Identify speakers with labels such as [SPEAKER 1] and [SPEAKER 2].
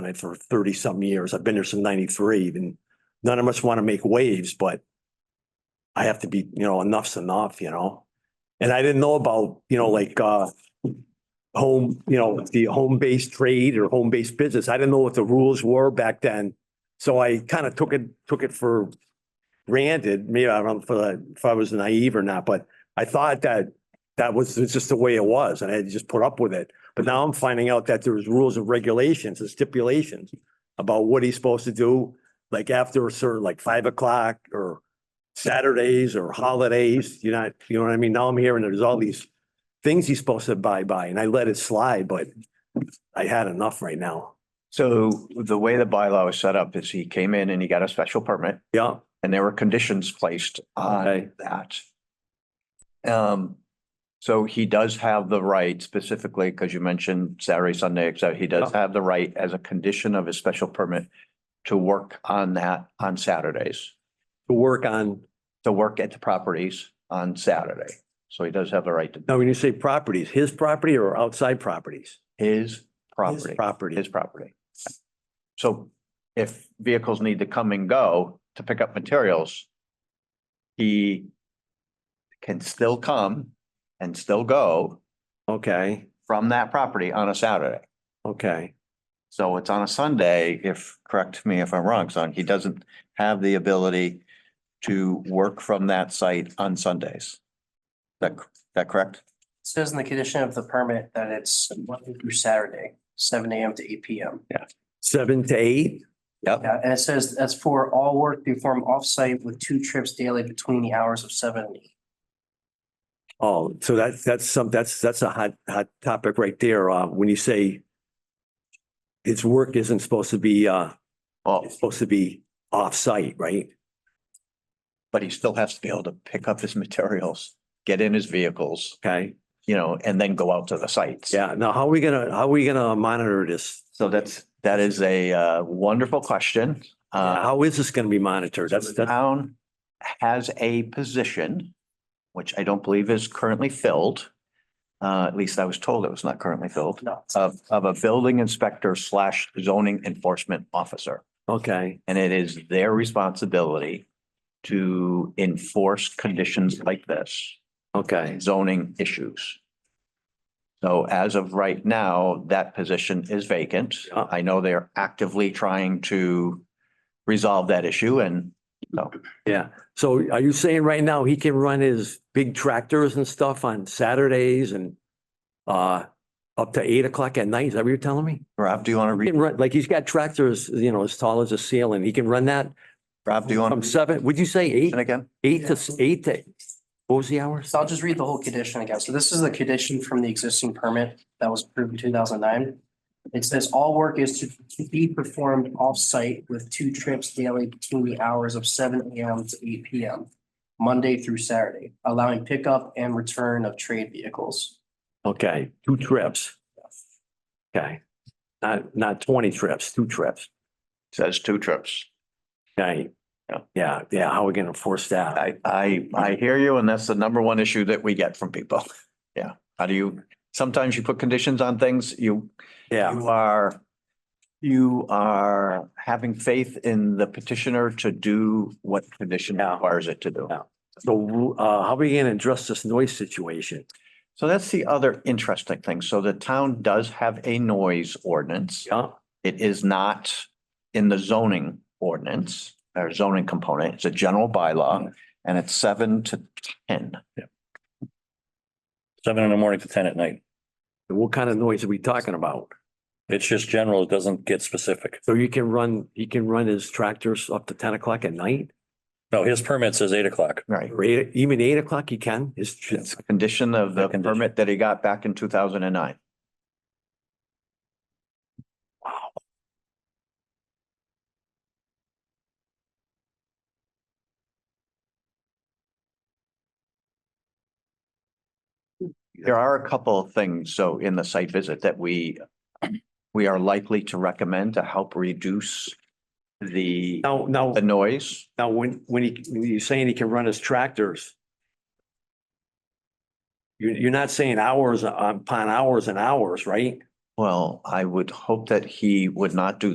[SPEAKER 1] on it for thirty something years. I've been there since ninety-three and none of us want to make waves, but I have to be, you know, enough's enough, you know? And I didn't know about, you know, like, uh, home, you know, the home-based trade or home-based business. I didn't know what the rules were back then. So I kind of took it, took it for granted. Maybe I don't know if, uh, if I was naive or not, but I thought that that was it's just the way it was and I had to just put up with it. But now I'm finding out that there was rules and regulations and stipulations about what he's supposed to do, like after a certain, like five o'clock or Saturdays or holidays, you're not, you know what I mean? Now I'm hearing there's all these things he's supposed to abide by and I let it slide, but I had enough right now.
[SPEAKER 2] So the way the bylaw is set up is he came in and he got a special permit
[SPEAKER 1] Yeah,
[SPEAKER 2] and there were conditions placed
[SPEAKER 1] Okay.
[SPEAKER 2] on that. Um, so he does have the right specifically, because you mentioned Saturday, Sunday, so he does
[SPEAKER 1] Yeah.
[SPEAKER 2] have the right as a condition of his special permit to work on that on Saturdays,
[SPEAKER 1] to work on,
[SPEAKER 2] to work at the properties on Saturday. So he does have the right to
[SPEAKER 1] now when you say properties, his property or outside properties?
[SPEAKER 2] his
[SPEAKER 1] His
[SPEAKER 2] property.
[SPEAKER 1] Property.
[SPEAKER 2] his property. So if vehicles need to come and go to pick up materials, he can still come and still go
[SPEAKER 1] Okay,
[SPEAKER 2] from that property on a Saturday.
[SPEAKER 1] okay.
[SPEAKER 2] So it's on a Sunday, if, correct me if I'm wrong, son, he doesn't have the ability to work from that site on Sundays. That, that correct?
[SPEAKER 3] Says in the condition of the permit that it's Monday through Saturday, seven AM to eight PM.
[SPEAKER 1] Seven to eight?
[SPEAKER 2] Yep.
[SPEAKER 3] Yeah, and it says that's for all work performed off-site with two trips daily between the hours of seven and eight.
[SPEAKER 1] Oh, so that's, that's some, that's, that's a hot, hot topic right there. Uh, when you say its work isn't supposed to be, uh,
[SPEAKER 2] Well,
[SPEAKER 1] it's supposed to be off-site, right?
[SPEAKER 2] but he still has to be able to pick up his materials, get in his vehicles,
[SPEAKER 1] Okay,
[SPEAKER 2] you know, and then go out to the sites.
[SPEAKER 1] yeah. Now, how are we gonna, how are we gonna monitor this?
[SPEAKER 2] So that's, that is a uh, wonderful question. Uh,
[SPEAKER 1] How is this gonna be monitored?
[SPEAKER 2] so
[SPEAKER 1] That's,
[SPEAKER 2] the
[SPEAKER 1] that's,
[SPEAKER 2] town has a position, which I don't believe is currently filled. Uh, at least I was told it was not currently filled,
[SPEAKER 3] No,
[SPEAKER 2] of, of a building inspector slash zoning enforcement officer.
[SPEAKER 1] okay,
[SPEAKER 2] And it is their responsibility to enforce conditions like this
[SPEAKER 1] okay,
[SPEAKER 2] zoning issues. So as of right now, that position is vacant.
[SPEAKER 1] Yeah.
[SPEAKER 2] I know they're actively trying to resolve that issue and
[SPEAKER 1] yeah. So are you saying right now he can run his big tractors and stuff on Saturdays and uh, up to eight o'clock at night? Is that what you're telling me?
[SPEAKER 2] Rob, do you want to
[SPEAKER 1] He
[SPEAKER 2] read,
[SPEAKER 1] can run, like he's got tractors, you know, as tall as a ceiling. He can run that
[SPEAKER 2] Rob, do you want
[SPEAKER 1] from
[SPEAKER 2] to
[SPEAKER 1] seven, would you say eight,
[SPEAKER 2] read it again?
[SPEAKER 1] eight to, s- eight to, what was the hours?
[SPEAKER 3] so I'll just read the whole condition again. So this is the condition from the existing permit that was approved in two thousand nine. It says all work is to be performed off-site with two trips daily between the hours of seven AM to eight PM, Monday through Saturday, allowing pickup and return of trade vehicles.
[SPEAKER 1] Okay, two trips. Okay, not, not twenty trips, two trips.
[SPEAKER 2] Says two trips.
[SPEAKER 1] Okay.
[SPEAKER 2] Yeah.
[SPEAKER 1] Yeah, yeah, how are we gonna enforce that?
[SPEAKER 2] I, I, I hear you and that's the number one issue that we get from people. Yeah. How do you, sometimes you put conditions on things, you,
[SPEAKER 1] Yeah,
[SPEAKER 2] you are, you are having faith in the petitioner to do what condition
[SPEAKER 1] Yeah.
[SPEAKER 2] requires it to do.
[SPEAKER 1] Yeah. so, uh, how are we gonna address this noise situation?
[SPEAKER 2] So that's the other interesting thing. So the town does have a noise ordinance.
[SPEAKER 1] Yeah,
[SPEAKER 2] It is not in the zoning ordinance or zoning component. It's a general bylaw and it's seven to ten.
[SPEAKER 4] seven in the morning to ten at night.
[SPEAKER 1] what kind of noise are we talking about?
[SPEAKER 4] It's just general, it doesn't get specific.
[SPEAKER 1] So you can run, he can run his tractors up to ten o'clock at night?
[SPEAKER 4] No, his permit says eight o'clock.
[SPEAKER 2] Right.
[SPEAKER 1] Or eight, even eight o'clock he can? Is,
[SPEAKER 2] It's a condition of
[SPEAKER 4] A
[SPEAKER 2] the
[SPEAKER 4] condition.
[SPEAKER 2] permit that he got back in two thousand and nine. There are a couple of things, so in the site visit that we, we are likely to recommend to help reduce the,
[SPEAKER 1] now, now.
[SPEAKER 2] the noise.
[SPEAKER 1] Now, when, when he, when you're saying he can run his tractors, you're, you're not saying hours upon hours and hours, right?
[SPEAKER 2] Well, I would hope that he would not do